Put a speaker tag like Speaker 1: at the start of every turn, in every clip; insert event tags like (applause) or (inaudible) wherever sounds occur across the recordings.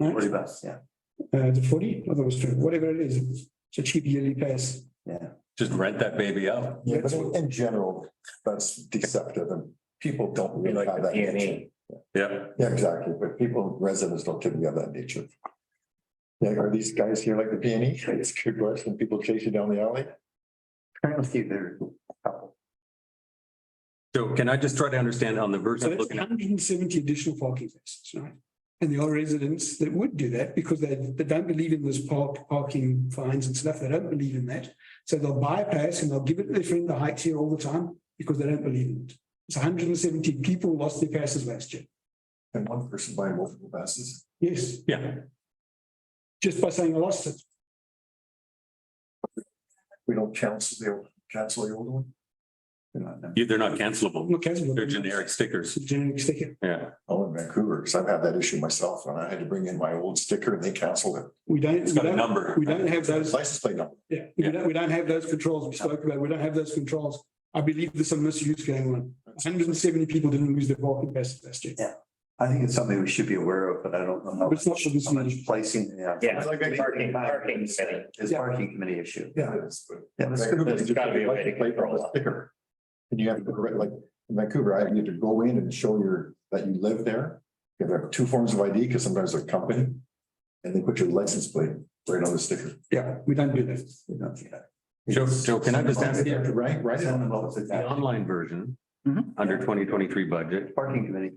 Speaker 1: right?
Speaker 2: Forty bucks, yeah,
Speaker 1: Uh, the forty, or those two, whatever it is, it's a cheap yearly pass.
Speaker 2: yeah.
Speaker 3: Just rent that baby out.
Speaker 4: Yeah, but in- in general, that's deceptive and people don't really have that
Speaker 2: E.
Speaker 4: nature.
Speaker 3: Yeah.
Speaker 4: Yeah, exactly, but people, residents don't typically have that nature. Yeah, are these guys here like the P and E? (laughs) It's a good question. People chase you down the alley.
Speaker 2: Currently, there.
Speaker 3: So can I just try to understand on the verse
Speaker 1: So
Speaker 3: I'm
Speaker 1: that's
Speaker 3: looking at?
Speaker 1: hundred and seventy additional parking spaces, right? And there are residents that would do that because they, they don't believe in this park, parking fines and stuff. They don't believe in that. So they'll buy a pass and they'll give it to their friend the heights here all the time because they don't believe in it. It's hundred and seventy people lost their passes last year.
Speaker 4: And one person buying multiple passes.
Speaker 1: Yes,
Speaker 3: Yeah,
Speaker 1: just by saying I lost it.
Speaker 4: We don't cancel the, old- cancel the old one. You're not in-
Speaker 3: you- they're not cancelable.
Speaker 1: Not cancelable.
Speaker 3: They're generic stickers.
Speaker 1: It's a generic sticker.
Speaker 3: Yeah.
Speaker 4: Oh, in Vancouver, because I've had that issue myself and I had to bring in my old sticker and they canceled it.
Speaker 1: We don't.
Speaker 3: It's got
Speaker 1: we
Speaker 3: a
Speaker 1: don't-
Speaker 3: number.
Speaker 1: We don't have those.
Speaker 4: License plate number.
Speaker 1: Yeah, we
Speaker 3: Yeah.
Speaker 1: don't, we don't have those controls we spoke about. We don't have those controls. I believe there's some misuse going on. Hundred and seventy people didn't lose their parking passes last year.
Speaker 2: I think it's something we should be aware of, but I don't know how.
Speaker 1: But it's not for this
Speaker 2: how much
Speaker 1: meeting.
Speaker 2: Placing, yeah.
Speaker 5: Yeah,
Speaker 4: Like that-
Speaker 5: parking, parking city.
Speaker 2: It's
Speaker 1: Yeah.
Speaker 2: parking committee issue.
Speaker 4: Yeah. it's- but-
Speaker 2: Yeah, that's good.
Speaker 4: Vancouver,
Speaker 5: There's gotta be a way to
Speaker 4: plate number
Speaker 5: control that.
Speaker 4: sticker. And you have to, go right- like in Vancouver, I you have to go in and show your, that you live there. You have to have two forms of ID because sometimes they're company. And they put your license plate right on the sticker.
Speaker 1: Yeah, we don't do that.
Speaker 2: We don't do that.
Speaker 3: Joe, Joe, can I just ask
Speaker 4: Yeah,
Speaker 3: you,
Speaker 4: Right, right.
Speaker 2: Send them both at
Speaker 3: the
Speaker 2: that.
Speaker 3: online version,
Speaker 2: Mhm.
Speaker 3: under twenty twenty-three budget,
Speaker 2: Parking committee.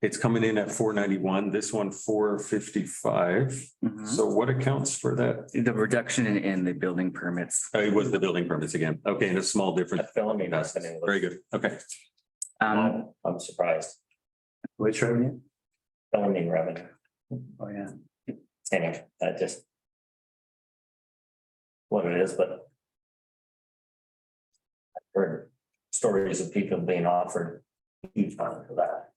Speaker 3: It's coming in at four ninety-one, this one four fifty-five.
Speaker 2: Mm-hmm.
Speaker 3: So what accounts for that?
Speaker 6: Mm-hmm. The reduction in, in the building permits.
Speaker 3: Uh, It was the building permits again. Okay, and a small
Speaker 5: A
Speaker 3: difference.
Speaker 5: film, you know,
Speaker 3: That's-
Speaker 5: something.
Speaker 3: Very good. Okay.
Speaker 6: Um,
Speaker 5: Wow, I'm surprised.
Speaker 2: Which revenue?
Speaker 5: Filming revenue,
Speaker 2: Oh, yeah.
Speaker 5: anyway, that just. What it is, but. I've Heard stories of people being offered huge money for that.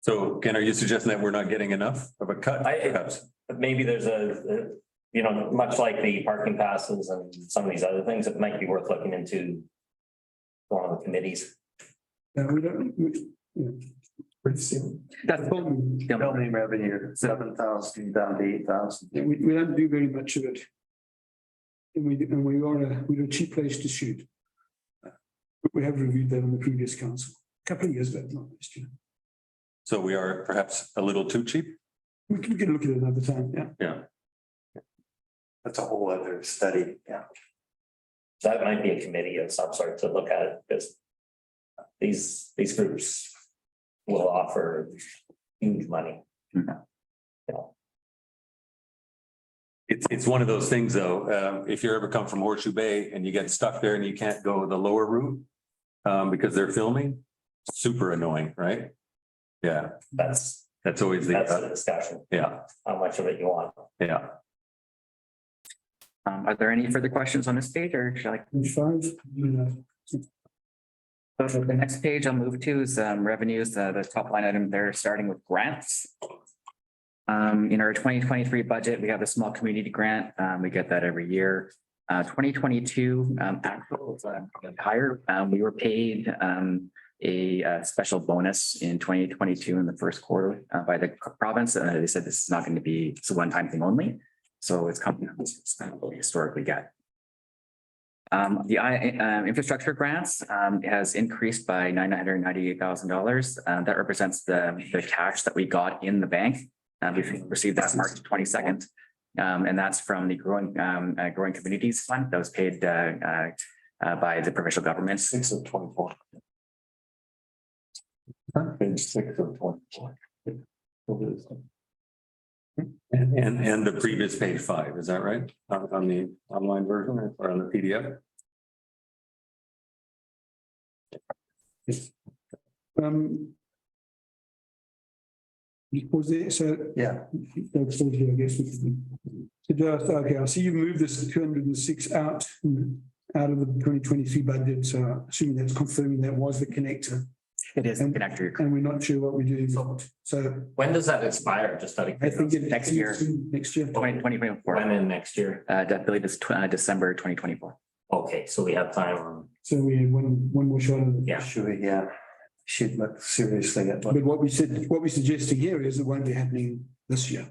Speaker 3: So Ken, are you suggesting that we're not getting enough of a cut?
Speaker 5: I-
Speaker 3: perhaps?
Speaker 5: But maybe there's a, you know, much like the parking passes and some of these other things, it might be worth looking into. Going with committees.
Speaker 1: No, we don't. we-
Speaker 4: Pretty soon.
Speaker 6: that's,
Speaker 1: um,
Speaker 6: yeah,
Speaker 2: Building revenue, seven thousand down to eight thousand.
Speaker 1: We, we don't do very much of it. And we, and we are a, we're a cheap place to shoot. But We have reviewed that on the previous council, a couple of years back, not last year.
Speaker 3: So we are perhaps a little too cheap?
Speaker 1: We can, we can look at it another time, yeah.
Speaker 2: That's a whole other study, yeah.
Speaker 5: So That might be a committee of some sort to look at it, because these, these groups will offer huge money.
Speaker 3: It's, it's one of those things though, um, if you ever come from Horseshoe Bay and you get stuck there and you can't go the lower route um, because they're filming, super annoying, right? Yeah,
Speaker 5: That's,
Speaker 3: that's always the,
Speaker 5: that's the
Speaker 3: uh,
Speaker 5: discussion,
Speaker 3: yeah,
Speaker 5: how much of it you want.
Speaker 3: yeah.
Speaker 6: um, are there any further questions on this page or should I?
Speaker 1: Page five, you know,
Speaker 6: So The next page I'll move to is um, revenues, uh, the top line item there, starting with grants. Um, in our twenty twenty-three budget, we have the small community grant. Um, we get that every year. Uh, twenty twenty-two, um, actual, is, uh, higher, um, we were paid, um, a, uh, special bonus in twenty twenty-two in the first quarter, uh, by the province. Uh, they said this is not going to be, it's a one-time thing only. So it's coming, it's not what we historically get. Um, the I, um, infrastructure grants, um, has increased by nine hundred ninety-eight thousand dollars. Uh, that represents the, the cash that we got in the bank. Uh, we received that March twenty-second. Um, and that's from the growing, um, uh, growing communities fund that was paid, uh, uh, uh, by the provincial governments.
Speaker 4: Six of twenty-four. Page six of twenty-four.
Speaker 3: And, and, and the previous page five, is that right? On, on the online version or on the PDF?
Speaker 1: um. Was there, so
Speaker 2: Yeah,
Speaker 1: Doug's still here, I guess. we can- So just, okay, I see you moved this two hundred and six out, out of the twenty twenty-three budget, so assuming that's confirming that was the connector.
Speaker 6: It is
Speaker 1: And-
Speaker 6: connector.
Speaker 1: And we're not sure what we're doing, with it. so
Speaker 5: When does that expire? Just out of
Speaker 1: I think.
Speaker 5: curiosity.
Speaker 1: it-
Speaker 6: Next year.
Speaker 1: Next year.
Speaker 6: Twenty, twenty
Speaker 5: When
Speaker 6: twenty-four,
Speaker 5: in next year?
Speaker 6: uh, I believe it's tw- uh, December twenty twenty-four.
Speaker 5: Okay, so we have time on,
Speaker 1: So we have one, one more shot. at it.
Speaker 5: Yeah.
Speaker 2: should we, yeah, should look seriously at what
Speaker 1: But what we said, what we're suggesting here is it won't be happening this year.